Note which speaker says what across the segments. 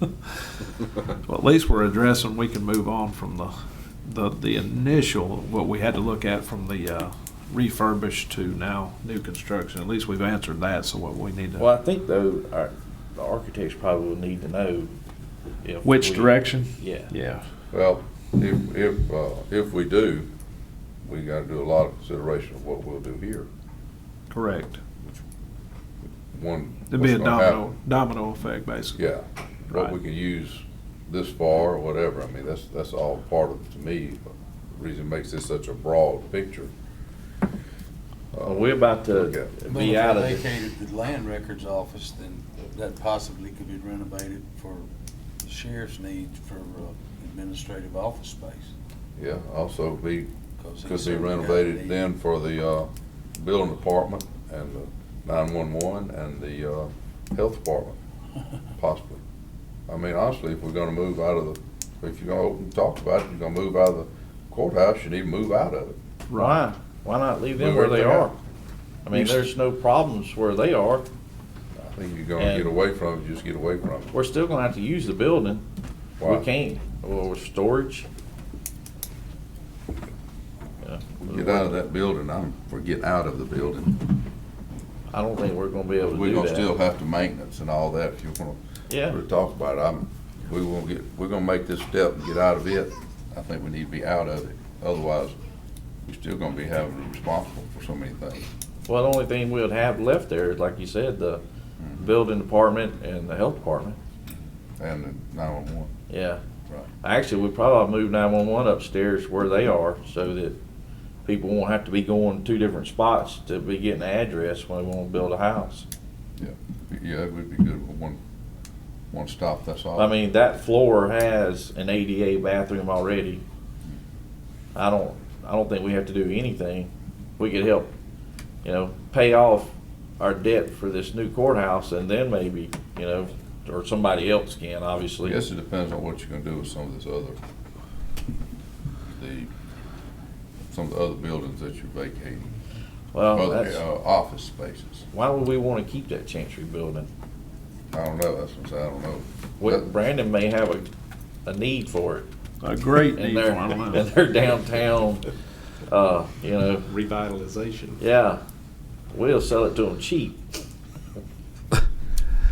Speaker 1: Well, at least we're addressing, we can move on from the, the, the initial, what we had to look at from the uh, refurbished to now new construction. At least we've answered that, so what we need to.
Speaker 2: Well, I think though, our, the architects probably will need to know if.
Speaker 1: Which
Speaker 2: we-
Speaker 1: direction?
Speaker 2: Yeah.
Speaker 1: Yeah.
Speaker 3: Well, if, if, uh, if we do, we gotta do a lot of consideration of what we'll do here.
Speaker 1: Correct.
Speaker 3: One.
Speaker 1: There'd be a
Speaker 3: what's gonna happen.
Speaker 1: domino, domino effect, basically.
Speaker 3: Yeah, what we
Speaker 1: Right.
Speaker 3: can use this for or whatever, I mean, that's, that's all part of, to me, the reason it makes this such a broad picture. Uh,
Speaker 2: Well, we're about to
Speaker 3: Okay.
Speaker 4: Well,
Speaker 2: be out of
Speaker 4: If they
Speaker 2: it.
Speaker 4: vacated the land records office, then that possibly could be renovated for the sheriff's needs for uh, administrative office space.
Speaker 3: Yeah, also be,
Speaker 4: 'cause he
Speaker 3: could be
Speaker 4: certainly got
Speaker 3: renovated
Speaker 4: need.
Speaker 3: then for the, uh, building department and the nine-one-one and the, uh, health department, possibly. I mean, honestly, if we're gonna move out of the, if you're gonna open, talk about it, you're gonna move out of the courthouse, you need to move out of it.
Speaker 2: Why? Why not leave them
Speaker 3: Move
Speaker 2: where they
Speaker 3: everything
Speaker 2: are?
Speaker 3: out.
Speaker 2: I mean, there's no problems where they are.
Speaker 3: I think you're gonna
Speaker 2: And-
Speaker 3: get away from it, just get away from it.
Speaker 2: We're still gonna have to use the building. We
Speaker 3: Why?
Speaker 2: can't, well, with storage. Yeah.
Speaker 3: Get out of that building, I'm for getting out of the building.
Speaker 2: I don't think we're gonna be able to
Speaker 3: We're
Speaker 2: do
Speaker 3: gonna still
Speaker 2: that.
Speaker 3: have to maintenance and all that, if you wanna,
Speaker 2: Yeah,
Speaker 3: wanna talk about it, I'm, we won't get, we're gonna make this step and get out of it. I think we need to be out of it, otherwise, we're still gonna be having to be responsible for so many things.
Speaker 2: well, the only thing we'd have left there is, like you said, the building department and the health department,
Speaker 3: And nine-one-one,
Speaker 2: yeah.
Speaker 3: Right.
Speaker 2: Actually, we probably move nine-one-one upstairs where they are, so that people won't have to be going two different spots to be getting the address when we wanna build a house.
Speaker 3: yeah, it would be good with one, one stop, that's all.
Speaker 2: I mean, that floor has an ADA bathroom already. I don't, I don't think we have to do anything. We could help, you know, pay off our debt for this new courthouse and then maybe, you know, or somebody else can,
Speaker 3: I
Speaker 2: obviously.
Speaker 3: guess it depends on what you're gonna do with some of this other, the, some of the other buildings that you're vacating,
Speaker 2: Well,
Speaker 3: other,
Speaker 2: Oh, that's,
Speaker 3: uh, office spaces.
Speaker 2: why would we wanna keep that Chancery building?
Speaker 3: I don't know, that's what I'm saying, I don't know.
Speaker 2: Well,
Speaker 3: That-
Speaker 2: Brandon may have a, a need for it
Speaker 1: A great need
Speaker 2: in
Speaker 1: for,
Speaker 2: their,
Speaker 1: I don't
Speaker 2: in
Speaker 1: know.
Speaker 2: their downtown, uh, you know,
Speaker 5: revitalization.
Speaker 2: yeah. We'll sell it to them cheap.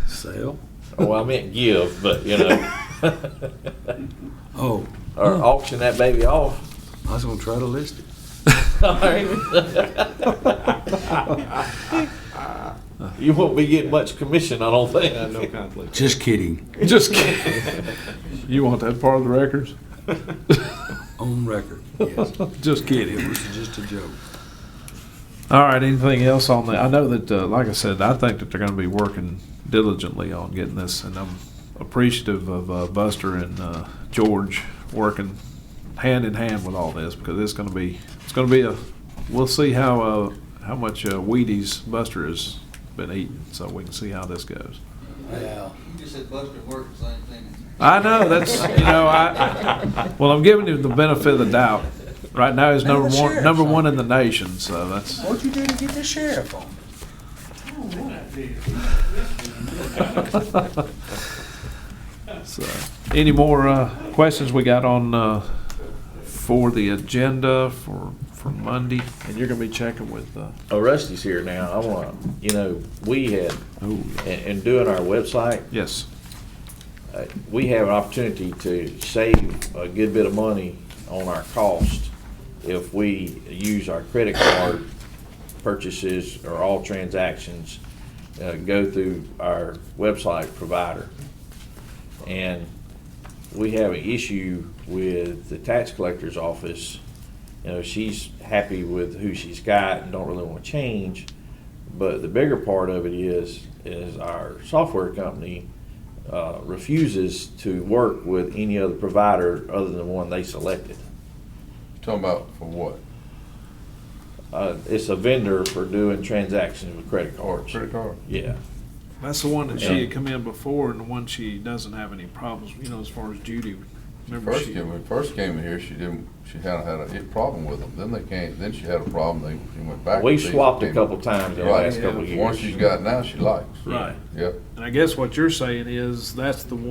Speaker 5: Sale?
Speaker 2: Oh, I meant give, but you know,
Speaker 5: Oh,
Speaker 2: or auction that baby off.
Speaker 5: I was gonna try to list it.
Speaker 2: All right. you won't be getting much commission, I don't think.
Speaker 5: Yeah, Uh, no conflict.
Speaker 6: Just kidding.
Speaker 1: Just kidding. You want that part of the records?
Speaker 6: On record. Yes.
Speaker 1: Just kidding.
Speaker 6: It was just a joke.
Speaker 1: All right, anything else on that? I know that, uh, like I said, I think that they're gonna be working diligently on getting this, and I'm appreciative of, uh, Buster and, uh, George working hand in hand with all this, because it's gonna be, it's gonna be a, we'll see how, uh, how much, uh, Wheaties Buster has been eating, so we can see how this goes.
Speaker 4: Yeah.
Speaker 7: You just said Buster worked the same thing.
Speaker 1: I know, that's, you know, I, well, I'm giving him the benefit of the doubt. Right now, he's
Speaker 4: Man,
Speaker 1: number
Speaker 4: the
Speaker 1: one,
Speaker 4: sheriff's
Speaker 1: number
Speaker 4: on
Speaker 1: one in the nation, so that's.
Speaker 4: What'd you do to get the sheriff on?
Speaker 1: So, any more uh, questions we got on, uh, for the agenda for, for Monday? And you're gonna be checking with, uh,
Speaker 2: Oh, Rusty's here now. I want to, you know, we had
Speaker 1: oh,
Speaker 2: in, in doing our website,
Speaker 1: yes,
Speaker 2: uh, we have an opportunity to save a good bit of money on our cost if we use our credit card purchases or all transactions uh, go through our website provider. And we have an issue with the tax collector's office. You know, she's happy with who she's got and don't really want to change. But the bigger part of it is, is our software company uh, refuses to work with any other provider other than the one they selected.
Speaker 3: Talking about for what?
Speaker 2: Uh, It's a vendor for doing transactions with credit
Speaker 3: Or
Speaker 2: cards.
Speaker 3: credit card?
Speaker 2: Yeah.
Speaker 1: that's the one that
Speaker 2: Yeah.
Speaker 1: she had come in before and the one she doesn't have any problems, you know, as far as Judy. Remember
Speaker 3: First,
Speaker 1: she,
Speaker 3: when we first came in here, she didn't, she had, had a hit problem with them, then they came, then she had a problem, they, she went back. to
Speaker 2: We
Speaker 3: these
Speaker 2: swapped a
Speaker 3: people.
Speaker 2: couple times in the
Speaker 3: Right.
Speaker 2: last couple of
Speaker 3: One
Speaker 2: years.
Speaker 3: she's got now, she likes,
Speaker 1: right,
Speaker 3: yep.
Speaker 1: and I guess what you're saying is, that's the one